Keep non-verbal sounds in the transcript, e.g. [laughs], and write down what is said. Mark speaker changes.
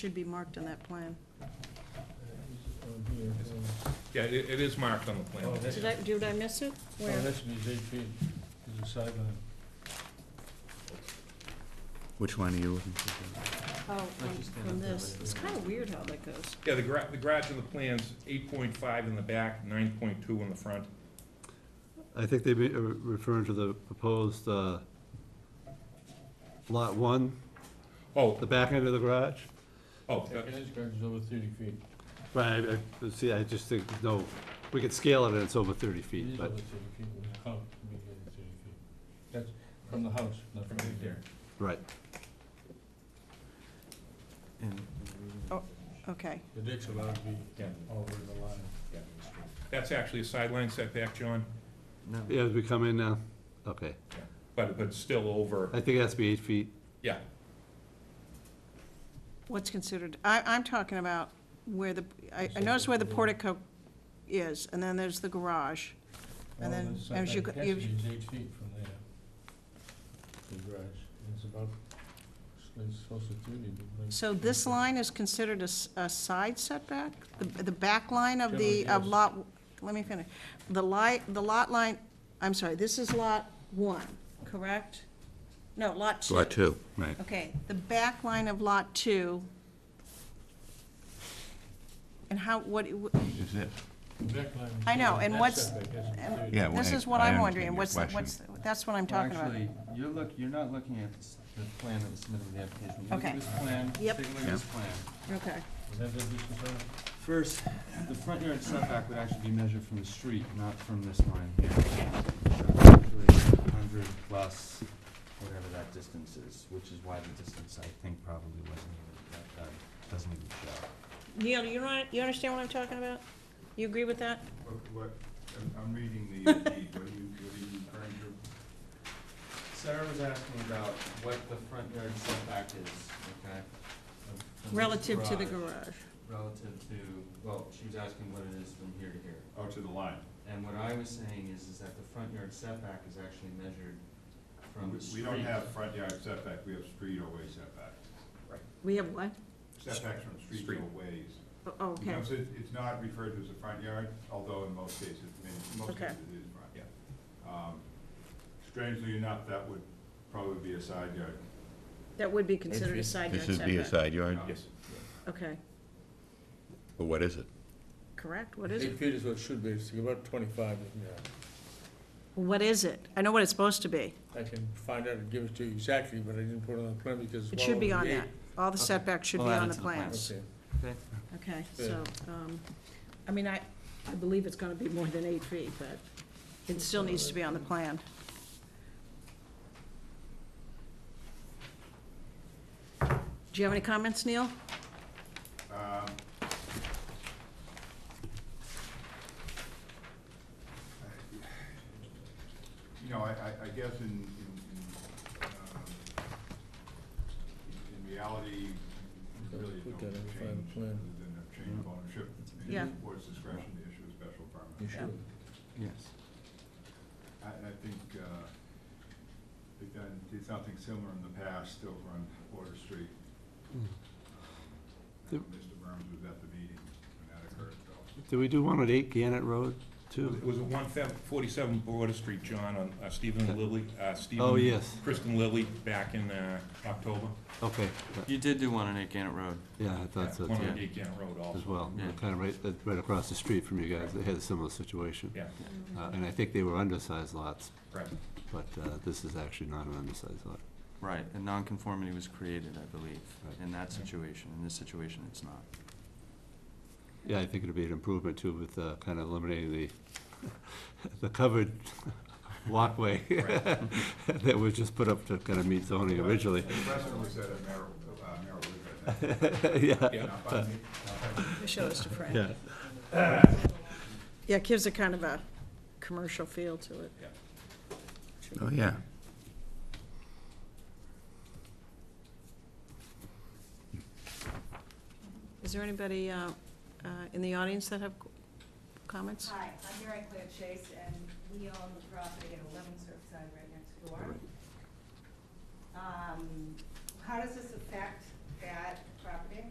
Speaker 1: Should be marked on that plan.
Speaker 2: Yeah, it, it is marked on the plan.
Speaker 3: Oh, that's-
Speaker 1: Did I, did I miss it? Where?
Speaker 3: Oh, that should be his eight feet, is the sideline.
Speaker 4: Which one are you looking for?
Speaker 1: Oh, from from this. It's kind of weird how that goes.
Speaker 2: Yeah, the garage, the garage in the plan's eight point five in the back, nine point two in the front.
Speaker 4: I think they be- are referring to the proposed uh, lot one,
Speaker 2: Oh,
Speaker 4: the back end of the garage.
Speaker 2: oh, that-
Speaker 3: His garage is over thirty feet.
Speaker 4: Right, I- I- see, I just think, no, we could scale it and it's over 30
Speaker 3: It
Speaker 4: feet,
Speaker 3: is over
Speaker 4: but,
Speaker 3: thirty feet, when the house, we get it thirty feet. That's from the house, not from the
Speaker 2: there.
Speaker 4: right.
Speaker 1: Okay.
Speaker 3: The deck's allowed to be
Speaker 2: Yeah.
Speaker 3: over the line.
Speaker 2: Yeah. that's actually a sideline setback, John,
Speaker 4: Yeah, as we come in now, okay.
Speaker 2: but, but still over,
Speaker 4: I think it has to be eight feet.
Speaker 2: yeah.
Speaker 1: What's considered, I, I'm talking about where the, I, I noticed where the portico is, and then there's the garage. And then, as you go-
Speaker 3: It
Speaker 1: you-
Speaker 3: is eight feet from there. The garage, And it's about, it's supposed to thirty. but like-
Speaker 1: So this line is considered a, s- a side setback? The, the back line of the,
Speaker 3: Generally,
Speaker 1: of
Speaker 3: yes.
Speaker 1: lot, let me finish. The li, the lot line, I'm sorry, this is lot one, correct? No, lot two.
Speaker 4: two. Right.
Speaker 1: Okay, the back line of lot two. And how, what,
Speaker 5: Is it?
Speaker 3: The back line is
Speaker 1: I know,
Speaker 3: there,
Speaker 1: and
Speaker 3: that
Speaker 1: what's-
Speaker 3: setback has to be
Speaker 1: and-
Speaker 3: 30.
Speaker 5: Yeah,
Speaker 1: this
Speaker 5: well,
Speaker 1: is what
Speaker 5: I
Speaker 1: I'm
Speaker 5: understand
Speaker 1: wondering,
Speaker 5: your
Speaker 1: what's,
Speaker 5: question.
Speaker 1: what's, that's what I'm
Speaker 6: Well,
Speaker 1: talking about.
Speaker 6: Actually, you're look, you're not looking at s- the plan that was submitted with the application. You look
Speaker 1: Okay.
Speaker 6: at this plan, take
Speaker 1: Yep.
Speaker 6: a look at this plan.
Speaker 1: Okay,
Speaker 3: Is that what this is on?
Speaker 6: First, the front yard setback would actually be measured from the street, not from this line here. So actually, Hundred plus whatever that distance is, which is why the distance, I think, probably wasn't even, that, that doesn't even show.
Speaker 1: Neil, you know, you understand what I'm talking about? You agree with that?
Speaker 5: What, what, I'm- I'm reading the uh, deed, what are you, what are you referring to?
Speaker 6: Sarah was asking about what the front yard setback is, okay? from this
Speaker 1: Relative to the garage.
Speaker 6: relative to, well, she was asking what it is from here to here.
Speaker 5: Oh, to the line.
Speaker 6: And what I was saying is, is that the front yard setback is actually measured from
Speaker 5: We-
Speaker 6: the
Speaker 5: We
Speaker 6: street.
Speaker 5: don't have front yard setback, we have street or way setback.
Speaker 1: We have what?
Speaker 5: Setbacks from streets
Speaker 2: Street.
Speaker 5: or ways.
Speaker 1: Oh,
Speaker 5: You
Speaker 1: okay,
Speaker 5: know, so it's, it's not referred to as a front yard, although in most cases, I mean, in most
Speaker 1: Okay.
Speaker 5: cases it is front. Um, Strangely enough, that would probably be a side yard.
Speaker 1: that would be considered a side yard
Speaker 7: This would be a
Speaker 1: setback.
Speaker 7: side yard,
Speaker 2: Yes.
Speaker 1: Okay,
Speaker 7: but what is it?
Speaker 1: correct, what is
Speaker 3: Eight
Speaker 1: it?
Speaker 3: feet is what it should be, it's about twenty-five, yeah.
Speaker 1: What is it? I know what it's supposed to be.
Speaker 3: I can find out and give it to you exactly, but I didn't put it on the plan because.
Speaker 1: It should be on
Speaker 3: that.
Speaker 1: that. All the
Speaker 6: Okay.
Speaker 1: setbacks should be
Speaker 6: We'll add
Speaker 1: on
Speaker 6: it
Speaker 1: the
Speaker 6: to the plan.
Speaker 1: plans.
Speaker 3: Okay,
Speaker 1: Okay,
Speaker 3: Yeah.
Speaker 1: so, um, I mean, I, I believe it's gonna be more than eight feet, but it still needs to be on the plan. Do you have any comments, Neil?
Speaker 5: Um, You know, I, I, I guess in, in, in, um, in- in reality, you really
Speaker 3: Let's put
Speaker 5: don't
Speaker 3: that in the final
Speaker 5: change,
Speaker 3: plan.
Speaker 5: other than a change of ownership. and
Speaker 1: Yeah.
Speaker 5: the Board's discretion to issue a special
Speaker 3: you
Speaker 5: permit.
Speaker 3: should.
Speaker 6: Yes.
Speaker 5: I, I think, uh, they've done, did something similar in the past over on Water Street.
Speaker 4: Mm. The-
Speaker 5: And Mr. Burns was at the meeting when that occurred, so.
Speaker 4: Do we do one at eight Gannett Road,
Speaker 2: It
Speaker 4: too?
Speaker 2: was at one feb- forty-seven Border Street, John, on uh, Stephen and Lily, uh, Stephen.
Speaker 4: Oh, yes.
Speaker 2: Kristen Lilly back in, uh, October.
Speaker 4: Okay, but-
Speaker 6: You did do one on Eight Gannett Road.
Speaker 4: yeah, I thought so,
Speaker 2: One
Speaker 4: too,
Speaker 2: on Gate Gannett Road
Speaker 4: as
Speaker 2: also,
Speaker 4: well.
Speaker 6: Yeah.
Speaker 4: Kind of right, uh, right across the street from you guys, they had a similar situation.
Speaker 2: yeah,
Speaker 4: Uh, And I think they were undersized lots,
Speaker 2: right.
Speaker 4: but uh, this is actually not an undersized lot.
Speaker 6: Right, and nonconformity was created, I believe,
Speaker 4: Right.
Speaker 6: in that situation. In this situation, it's not.
Speaker 4: Yeah, I think it'd be an improvement too with uh, kind of eliminating the, the covered walkway [laughs] that was just put up to kind of meet zoning originally.
Speaker 5: The precedent was set at Merrill, uh, Merrill River,
Speaker 4: [laughs] Yeah,
Speaker 2: Yeah.
Speaker 5: not by me, not by me.
Speaker 1: Show us to Frank.
Speaker 4: yeah.
Speaker 1: [laughs] Yeah, it gives a kind of a commercial feel to it.
Speaker 7: Oh, yeah.
Speaker 1: Is there anybody uh, uh, in the audience that have qu- comments?
Speaker 8: Hi, I'm Mary Claire Chase, and we own the property at 11 Surfside right next door. Um, How does this affect that property?